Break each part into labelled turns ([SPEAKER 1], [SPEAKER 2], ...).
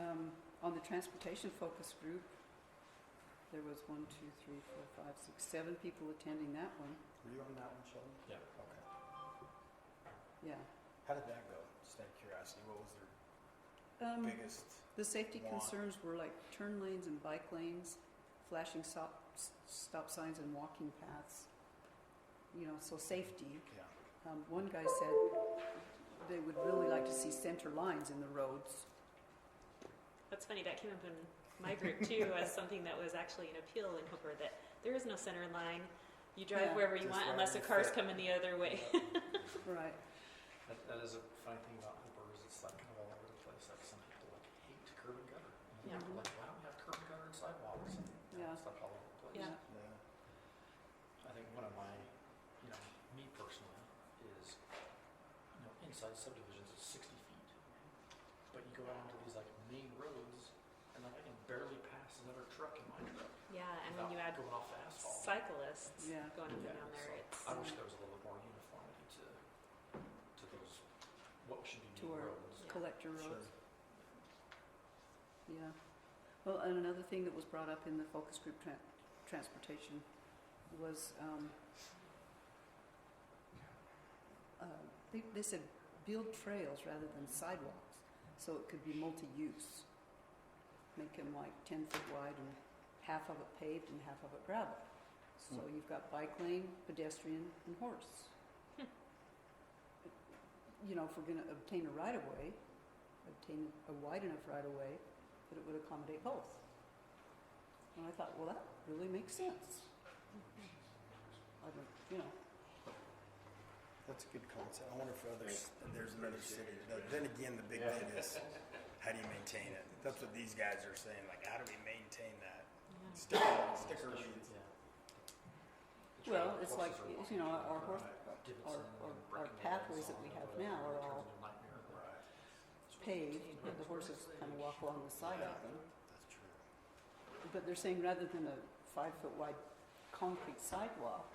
[SPEAKER 1] Um, on the transportation focus group, there was one, two, three, four, five, six, seven people attending that one,
[SPEAKER 2] Were you on that one, Sheldon?
[SPEAKER 3] Yeah.
[SPEAKER 2] Okay.
[SPEAKER 1] yeah.
[SPEAKER 2] How did that go? Just out of curiosity, what was their
[SPEAKER 1] Um,
[SPEAKER 2] biggest?
[SPEAKER 1] the safety
[SPEAKER 2] want.
[SPEAKER 1] concerns were like turn lanes and bike lanes, flashing stop, s- stop signs and walking paths. You know, so safety.
[SPEAKER 2] Yeah.
[SPEAKER 1] Um, one guy said they would really like to see center lines in the roads.
[SPEAKER 4] That's funny, that came up in my group too, as something that was actually an appeal in Hooper, that there is no center line. You drive
[SPEAKER 1] Yeah.
[SPEAKER 4] wherever you
[SPEAKER 2] Just
[SPEAKER 4] want unless
[SPEAKER 2] wherever
[SPEAKER 4] a
[SPEAKER 2] you
[SPEAKER 4] car's
[SPEAKER 2] fit.
[SPEAKER 4] coming the other way.
[SPEAKER 1] Right.
[SPEAKER 3] That, that is a funny thing about Hooper is it's like kind of all over the place. Like some people like hate curb and gutter. And
[SPEAKER 4] Yeah.
[SPEAKER 3] other people like why don't we have curb and gutter and sidewalks? And
[SPEAKER 1] Yeah.
[SPEAKER 3] It's like all over the place.
[SPEAKER 4] Yeah.
[SPEAKER 2] Yeah.
[SPEAKER 3] I think one of my, you know, me personally is, you know, inside subdivisions it's 60 feet, but you go out onto these like main roads and like I can barely pass another truck in my truck.
[SPEAKER 4] Yeah, and when you
[SPEAKER 3] without
[SPEAKER 4] add
[SPEAKER 3] going off the asphalt.
[SPEAKER 4] cyclists
[SPEAKER 1] Yeah.
[SPEAKER 4] going up and
[SPEAKER 3] Yeah,
[SPEAKER 4] down there, it's,
[SPEAKER 3] so I wish there was a little bit more uniformity to, to those, what should be
[SPEAKER 1] To
[SPEAKER 3] main
[SPEAKER 1] our-
[SPEAKER 3] roads.
[SPEAKER 4] Yeah.
[SPEAKER 1] Collector roads.
[SPEAKER 2] Sure.
[SPEAKER 1] Yeah. Well, and another thing that was brought up in the focus group tran transportation was um, uh, they, they said build trails rather than sidewalks, so it could be multi-use. Make them like ten foot wide and half of it paved and half of it gravel. So you've got bike lane, pedestrian, and horse. You know, if we're gonna obtain a right of way, obtain a wide enough right of way that it would accommodate both. And I thought, well, that really makes sense. I don't, you know,
[SPEAKER 2] That's a good concept. I wonder if others, there's another city. Th- Then again, the big thing is, how do you maintain it? That's what these guys are saying, like, how do we maintain that?
[SPEAKER 4] yeah.
[SPEAKER 2] Sticker, sticker
[SPEAKER 3] Especially,
[SPEAKER 2] reads.
[SPEAKER 3] yeah. The
[SPEAKER 1] Well,
[SPEAKER 3] trail
[SPEAKER 1] it's like,
[SPEAKER 3] courses are
[SPEAKER 1] you
[SPEAKER 3] wide,
[SPEAKER 1] know,
[SPEAKER 3] like,
[SPEAKER 1] our horse-
[SPEAKER 3] uh, divots
[SPEAKER 1] our-
[SPEAKER 3] and
[SPEAKER 1] our- our
[SPEAKER 3] breaking the
[SPEAKER 1] pathways that
[SPEAKER 3] legs
[SPEAKER 1] we
[SPEAKER 3] on
[SPEAKER 1] have
[SPEAKER 3] the-
[SPEAKER 1] now are
[SPEAKER 3] it turns
[SPEAKER 1] all
[SPEAKER 3] into a nightmare.
[SPEAKER 2] Right.
[SPEAKER 3] It's really
[SPEAKER 1] paved,
[SPEAKER 3] contained,
[SPEAKER 1] and
[SPEAKER 3] it's
[SPEAKER 1] the horses
[SPEAKER 3] really
[SPEAKER 1] kind of
[SPEAKER 3] safe.
[SPEAKER 1] walk along the side of them.
[SPEAKER 2] That's true.
[SPEAKER 1] But they're saying rather than a five foot wide concrete sidewalk,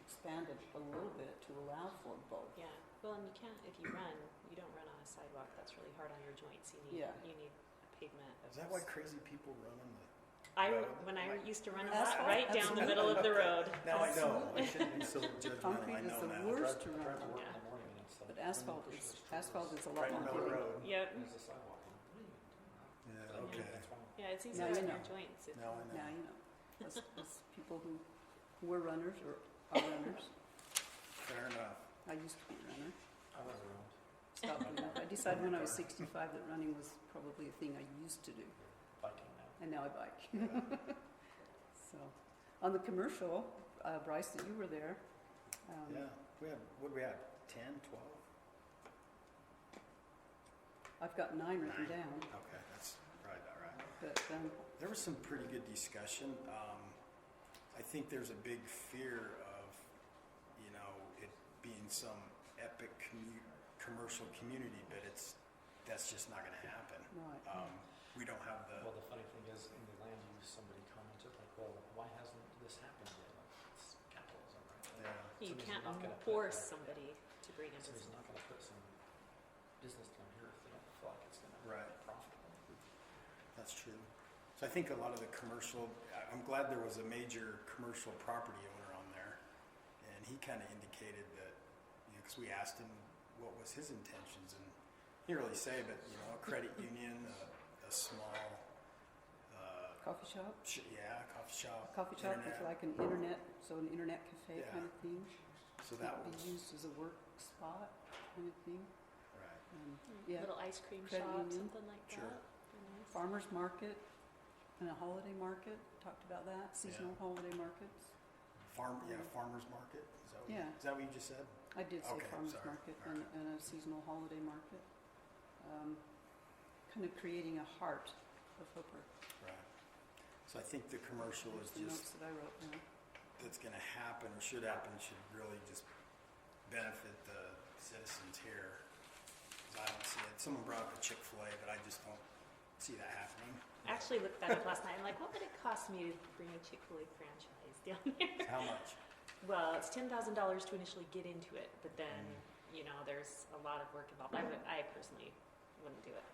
[SPEAKER 1] expand it a little bit to allow for both.
[SPEAKER 4] Yeah, well, and you can't, if you run, you don't run on a sidewalk, that's really hard on your joints, you need,
[SPEAKER 1] Yeah.
[SPEAKER 4] you need a pavement of.
[SPEAKER 2] Is that why crazy people run on the?
[SPEAKER 4] I,
[SPEAKER 2] road?
[SPEAKER 4] when I
[SPEAKER 2] Like-
[SPEAKER 4] used to run a
[SPEAKER 1] Asphalt?
[SPEAKER 4] lot, right down the middle of the road.
[SPEAKER 2] Now I know. I shouldn't be so judgmental. I
[SPEAKER 1] Concrete is
[SPEAKER 2] know
[SPEAKER 1] the
[SPEAKER 2] now.
[SPEAKER 1] worst
[SPEAKER 3] Drive-
[SPEAKER 1] to
[SPEAKER 3] drive
[SPEAKER 1] run
[SPEAKER 3] to
[SPEAKER 1] on,
[SPEAKER 3] work in
[SPEAKER 4] Yeah.
[SPEAKER 3] the morning and it's like,
[SPEAKER 1] but
[SPEAKER 3] when you
[SPEAKER 1] asphalt
[SPEAKER 3] push
[SPEAKER 1] is,
[SPEAKER 3] those trailers,
[SPEAKER 1] asphalt is a
[SPEAKER 2] Right
[SPEAKER 1] lot
[SPEAKER 2] in the
[SPEAKER 1] more
[SPEAKER 2] middle of the
[SPEAKER 1] giving.
[SPEAKER 2] road.
[SPEAKER 4] Yep,
[SPEAKER 3] There's a sidewalk. and what are you doing?
[SPEAKER 2] Yeah, Uh,
[SPEAKER 3] But
[SPEAKER 2] okay.
[SPEAKER 3] That's why
[SPEAKER 4] yeah, it's
[SPEAKER 1] Now
[SPEAKER 4] easier
[SPEAKER 1] you
[SPEAKER 4] on
[SPEAKER 1] know.
[SPEAKER 4] your joints. if-
[SPEAKER 2] Now I know.
[SPEAKER 1] Now, you know, us, us people who were runners or are runners,
[SPEAKER 2] Fair enough.
[SPEAKER 1] I used to be a runner,
[SPEAKER 3] I was around.
[SPEAKER 1] stopped doing that. I decided when I was sixty-five that running was probably a thing I used to do,
[SPEAKER 3] biking now.
[SPEAKER 1] and now I bike.
[SPEAKER 2] Yeah.
[SPEAKER 1] So, on the commercial, uh, Bryce, that you were there, um,
[SPEAKER 2] Yeah, we had, what do we have, ten, twelve?
[SPEAKER 1] I've got nine written down,
[SPEAKER 2] Okay, that's probably about right.
[SPEAKER 1] but, um,
[SPEAKER 2] There was some pretty good discussion. Um, I think there's a big fear of, you know, it being some epic commu- commercial community, but it's, that's just not gonna happen.
[SPEAKER 1] right,
[SPEAKER 2] Um, we don't have the,
[SPEAKER 3] Well, the funny thing is, in the land use, somebody commented like, well, why hasn't this happened yet? Like, it's capitalism, right?
[SPEAKER 2] yeah,
[SPEAKER 4] You
[SPEAKER 3] Somebody's
[SPEAKER 4] can't
[SPEAKER 3] not gonna put
[SPEAKER 4] force
[SPEAKER 3] that-
[SPEAKER 4] somebody to bring in
[SPEAKER 3] Somebody's
[SPEAKER 4] business.
[SPEAKER 3] not gonna put some business down here if they don't feel like it's gonna be
[SPEAKER 2] Right.
[SPEAKER 3] profitable.
[SPEAKER 2] that's true. So I think a lot of the commercial, I- I'm glad there was a major commercial property owner on there. And he kinda indicated that, you know, cause we asked him what was his intentions and he didn't really say, but, you know, a credit union, a, a small, uh,
[SPEAKER 1] coffee shop?
[SPEAKER 2] Sh- Yeah, coffee shop.
[SPEAKER 1] Coffee shop with
[SPEAKER 2] internet.
[SPEAKER 1] like an internet, so an internet cafe
[SPEAKER 2] Yeah.
[SPEAKER 1] kind of thing,
[SPEAKER 2] So
[SPEAKER 1] could
[SPEAKER 2] that
[SPEAKER 1] be
[SPEAKER 2] was,
[SPEAKER 1] used as a work spot kind of thing,
[SPEAKER 2] right,
[SPEAKER 1] um,
[SPEAKER 4] Mm,
[SPEAKER 1] Yeah.
[SPEAKER 4] Little ice cream
[SPEAKER 1] Credit
[SPEAKER 4] shop,
[SPEAKER 1] union.
[SPEAKER 4] something like that.
[SPEAKER 2] Sure.
[SPEAKER 4] Be nice.
[SPEAKER 1] farmer's market and a holiday market, talked about that, seasonal holiday markets.
[SPEAKER 2] farm, yeah, farmer's market, is that what, you-
[SPEAKER 1] Yeah.
[SPEAKER 2] is that what you just said?
[SPEAKER 1] I did say
[SPEAKER 2] Okay,
[SPEAKER 1] farmer's
[SPEAKER 2] sorry.
[SPEAKER 1] market
[SPEAKER 2] All
[SPEAKER 1] and, and a seasonal holiday market. Um, kind of creating a heart of Hooper.
[SPEAKER 2] Right. So I think the commercial
[SPEAKER 1] There's
[SPEAKER 2] is
[SPEAKER 1] the notes
[SPEAKER 2] just,
[SPEAKER 1] that I wrote down.
[SPEAKER 2] that's gonna happen, or should happen, should really just benefit the citizens here. 'Cause I don't see it, someone brought up a Chick-fil-A, but I just don't see that happening.
[SPEAKER 4] I actually looked that up last night. I'm like, what would it cost me to bring a Chick fil A franchise down here?
[SPEAKER 2] How much?
[SPEAKER 4] Well, it's $10,000 to initially get into it, but then, you know, there's a lot of work involved. I, would, I personally wouldn't do it.